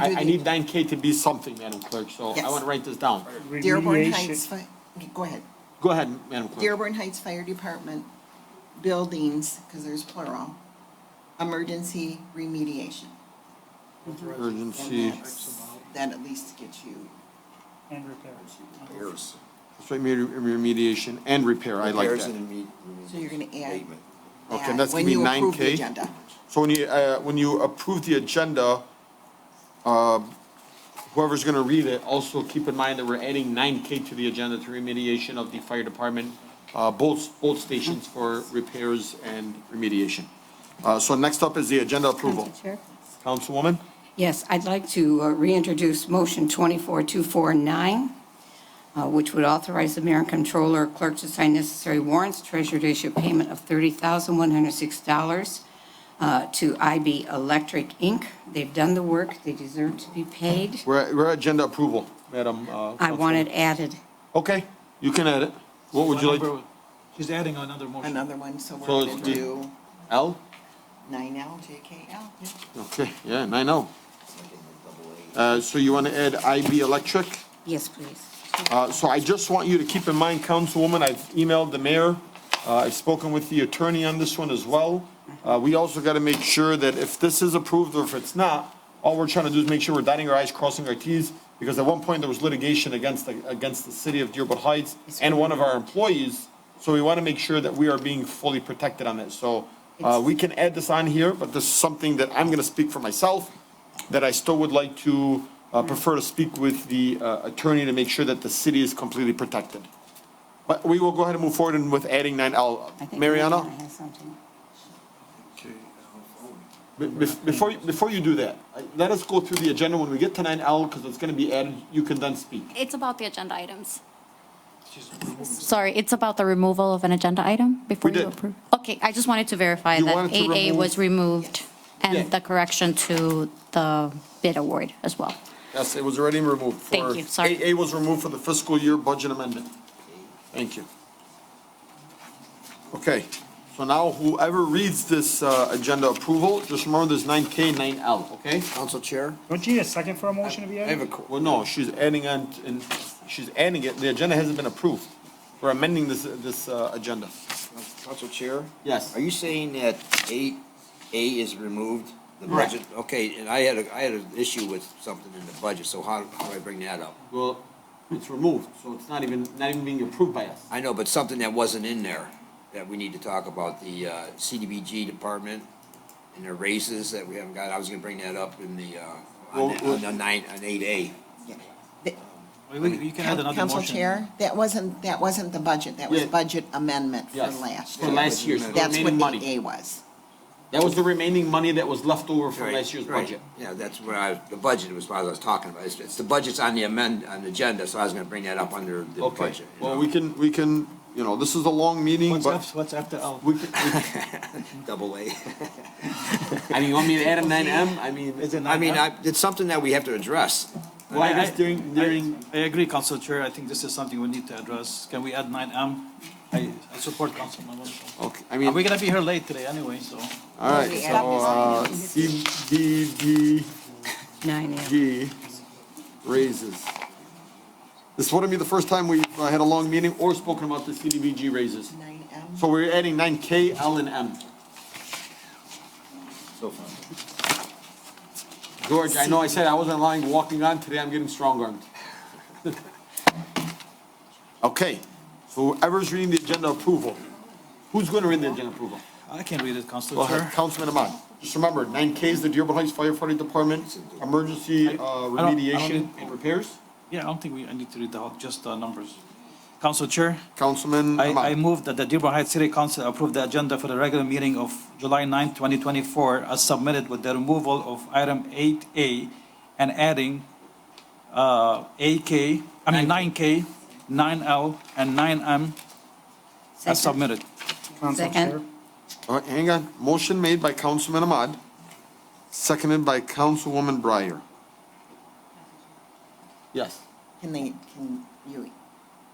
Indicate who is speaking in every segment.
Speaker 1: I,
Speaker 2: Do
Speaker 1: I
Speaker 2: the-
Speaker 1: need nine K to be something, Madam Clerk, so I
Speaker 2: Yes.
Speaker 1: want to write this down.
Speaker 2: Dearborn
Speaker 3: remediation-
Speaker 2: Heights, Fi- go ahead.
Speaker 1: Go ahead, Madam Clerk.
Speaker 2: Dearborn Heights Fire Department buildings, because there's plural, emergency remediation.
Speaker 1: Emergency,
Speaker 2: And that's, that at least gets you,
Speaker 3: And repairs.
Speaker 4: Repairs.
Speaker 1: that's right, remedi- remediation and repair, I like
Speaker 4: Repairs
Speaker 1: that.
Speaker 4: and imme-
Speaker 2: so you're gonna add
Speaker 4: abatement.
Speaker 1: Okay,
Speaker 2: that
Speaker 1: that's gonna
Speaker 2: when
Speaker 1: be
Speaker 2: you
Speaker 1: nine
Speaker 2: approve the
Speaker 1: K.
Speaker 2: agenda.
Speaker 1: So when you, uh, when you approve the agenda, uh, whoever's gonna read it, also keep in mind that we're adding nine K to the agenda to remediation of the fire department, uh, both, both stations for repairs and remediation. Uh, so next up is the agenda approval.
Speaker 5: Council Chair?
Speaker 1: Councilwoman?
Speaker 5: Yes, I'd like to uh, reintroduce Motion 24249, uh, which would authorize the mayor and controller clerk to sign necessary warrants, treasurer to issue payment of $30,106 uh, to IB Electric, Inc. They've done the work, they deserve to be paid.
Speaker 1: We're, at- we're at agenda approval, Madam, uh.
Speaker 5: I want it added.
Speaker 1: Councilwoman. Okay, you can add it. What would you like?
Speaker 6: She's adding another motion.
Speaker 2: Another one, so we're
Speaker 1: So it's
Speaker 2: gonna
Speaker 1: the-
Speaker 2: do
Speaker 1: L?
Speaker 2: nine L, JKL. yeah.
Speaker 1: Okay, yeah, nine oh. Uh, so you wanna add IB Electric?
Speaker 5: Yes, please.
Speaker 1: Uh, So I just want you to keep in mind, Councilwoman, I've emailed the mayor, uh, I've spoken with the attorney on this one as well. Uh, We also got to make sure that if this is approved or if it's not, all we're trying to do is make sure we're dotting our i's, crossing our t's, because at one point there was litigation against, the- against the city of Dearborn Heights and one of our employees, so we want to make sure that we are being fully protected on it. So uh, we can add this on here, but this is something that I'm going to speak for myself that I still would like to uh, prefer to speak with the uh, attorney to make sure that the city is completely protected. But we will go ahead and move forward and with adding 9L.
Speaker 5: I think
Speaker 1: Mariana,
Speaker 5: Mariana has something.
Speaker 1: be- be- before, you- before you do that, I- let us go through the agenda when we get to 9L, because it's going to be added, you can then speak.
Speaker 7: It's about the agenda items. Sorry, it's about the removal of an agenda item before
Speaker 1: We
Speaker 7: you
Speaker 1: did.
Speaker 7: approve? Okay, I just wanted to verify
Speaker 1: You
Speaker 7: that
Speaker 1: wanted to
Speaker 7: 8A
Speaker 1: remove-
Speaker 7: was removed
Speaker 1: Yeah.
Speaker 7: and the correction to the bid award as well.
Speaker 1: Yes, it was already removed. for-
Speaker 7: Thank you, sorry.
Speaker 1: 8A was removed for the fiscal year budget amendment. Thank you. Okay, so now whoever reads this uh, agenda approval, just remember there's 9K, 9L, okay?
Speaker 4: Council Chair?
Speaker 3: Don't you need a second for a motion to be
Speaker 4: I have
Speaker 3: added?
Speaker 4: a, qu-
Speaker 1: Well, no, she's adding on, t- and she's adding it, the agenda hasn't been approved. We're amending this, this, uh, agenda.
Speaker 4: Council Chair?
Speaker 1: Yes.
Speaker 4: Are you saying that eight A is removed? The
Speaker 1: Correct.
Speaker 4: budget, okay, and I had a, I had an issue with something in the budget, so how, how do I bring that up?
Speaker 1: Well, it's removed, so it's not even, not even being approved by us.
Speaker 4: I know, but something that wasn't in there that we need to talk about, the uh, CDBG department and their raises that we haven't got, I was gonna bring that up in the, uh,
Speaker 1: Well,
Speaker 4: on the-
Speaker 1: well-
Speaker 4: on the nine, on eight A.
Speaker 6: Wait, wait, You can add another
Speaker 2: Council
Speaker 6: motion.
Speaker 2: Chair, that wasn't, that wasn't the budget, that was
Speaker 1: Yeah.
Speaker 2: budget amendment for
Speaker 1: Yes,
Speaker 2: last
Speaker 1: For
Speaker 2: year.
Speaker 1: last year's, the
Speaker 2: That's
Speaker 1: remaining
Speaker 2: what
Speaker 1: money.
Speaker 2: eight A was.
Speaker 1: That was the remaining money that was left over from
Speaker 4: Right,
Speaker 1: last year's
Speaker 4: right.
Speaker 1: budget.
Speaker 4: Yeah, that's what I, the budget was what I was talking about. It's, it's the budget's on the amend, on the agenda, so I was gonna bring that up under the
Speaker 1: Okay,
Speaker 4: budget. you
Speaker 1: well,
Speaker 4: know,
Speaker 1: we can, we can, you know, this is a long meeting,
Speaker 6: What's
Speaker 1: but
Speaker 6: after, what's after L?
Speaker 1: we, can- we-
Speaker 4: Double A.
Speaker 1: I mean, you want me to add a nine M? I mean,
Speaker 6: Is it not
Speaker 4: I mean,
Speaker 6: done?
Speaker 4: I, it's something that we have to address.
Speaker 1: well, I guess during, during,
Speaker 6: I agree, Council Chair, I think this is something we need to address. Can we add nine M? I, I support Councilman Wilson.
Speaker 1: okay, I
Speaker 6: And we're
Speaker 1: mean,
Speaker 6: gonna be here late today anyway, so.
Speaker 1: all right,
Speaker 5: We
Speaker 1: so,
Speaker 5: add this
Speaker 1: uh,
Speaker 5: item.
Speaker 1: CDBG.
Speaker 5: 9 a.m.
Speaker 1: G raises. This wouldn't be the first time we've uh, had a long meeting or spoken about the CDBG raises.
Speaker 2: Nine M.
Speaker 1: So we're adding nine K, L, and M.
Speaker 4: So far.
Speaker 1: George, I know I said I wasn't lying, walking on, today I'm getting strong-armed. Okay, so whoever's reading the agenda approval, who's going to read the agenda approval?
Speaker 6: I can read it, Council
Speaker 1: Go
Speaker 6: Chair.
Speaker 1: ahead, Councilman Ahmad. Just remember, nine K is the Dearborn Heights Firefighting Department, emergency uh,
Speaker 6: I don't need-
Speaker 1: remediation and repairs.
Speaker 6: Yeah, I don't think we, I need to read the whole, just the numbers. Council Chair,
Speaker 1: Councilman
Speaker 6: I, I
Speaker 1: Ahmad.
Speaker 6: move that the Dearborn Heights City Council approve the agenda for the regular meeting of July 9, twenty twenty-four, as submitted with the removal of item eight A and adding, uh, AK, I mean, nine K, nine L, and nine M as
Speaker 5: Second.
Speaker 6: submitted.
Speaker 3: Council
Speaker 5: Second.
Speaker 3: Chair,
Speaker 1: All right, Uh, hang on. Motion made by Councilman Ahmad, seconded by Councilwoman Breyer. Yes.
Speaker 2: Can they, can you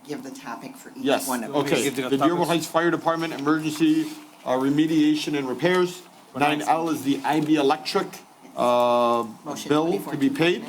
Speaker 2: give the topic for each
Speaker 1: Yes,
Speaker 2: one of them?
Speaker 1: okay. The Dearborn Heights Fire Department Emergency uh, Remediation and Repairs. Nine L is the IB Electric.
Speaker 2: uh,
Speaker 1: Motion
Speaker 2: bill to be
Speaker 1: 24.
Speaker 2: paid.